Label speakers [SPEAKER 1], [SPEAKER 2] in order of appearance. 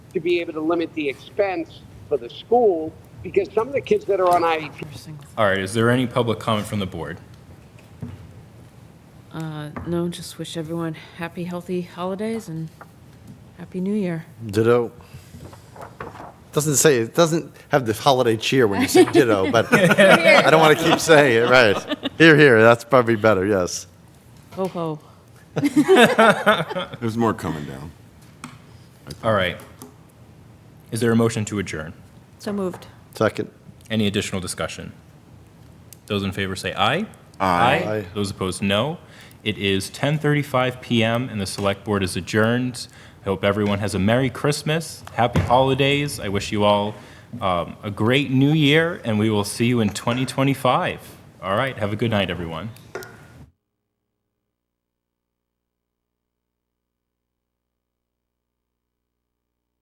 [SPEAKER 1] to be able to limit the expense for the school because some of the kids that are on E IEP,
[SPEAKER 2] All right, is there any public comment from the board?
[SPEAKER 3] Uh, no, just wish everyone happy, healthy holidays and happy new year.
[SPEAKER 4] Ditto. Doesn't say, it doesn't have the holiday cheer when you say ditto, but I don't want to keep saying it, right. Here, here, that's probably better, yes.
[SPEAKER 3] Ho ho.
[SPEAKER 5] There's more coming down.
[SPEAKER 2] All right. Is there a motion to adjourn?
[SPEAKER 6] So moved.
[SPEAKER 4] Second.
[SPEAKER 2] Any additional discussion? Those in favor say aye.
[SPEAKER 4] Aye.
[SPEAKER 2] Those opposed, no. It is 10:35 PM and the Select Board is adjourned. I hope everyone has a Merry Christmas, Happy Holidays. I wish you all um, a great New Year, and we will see you in 2025. All right, have a good night, everyone.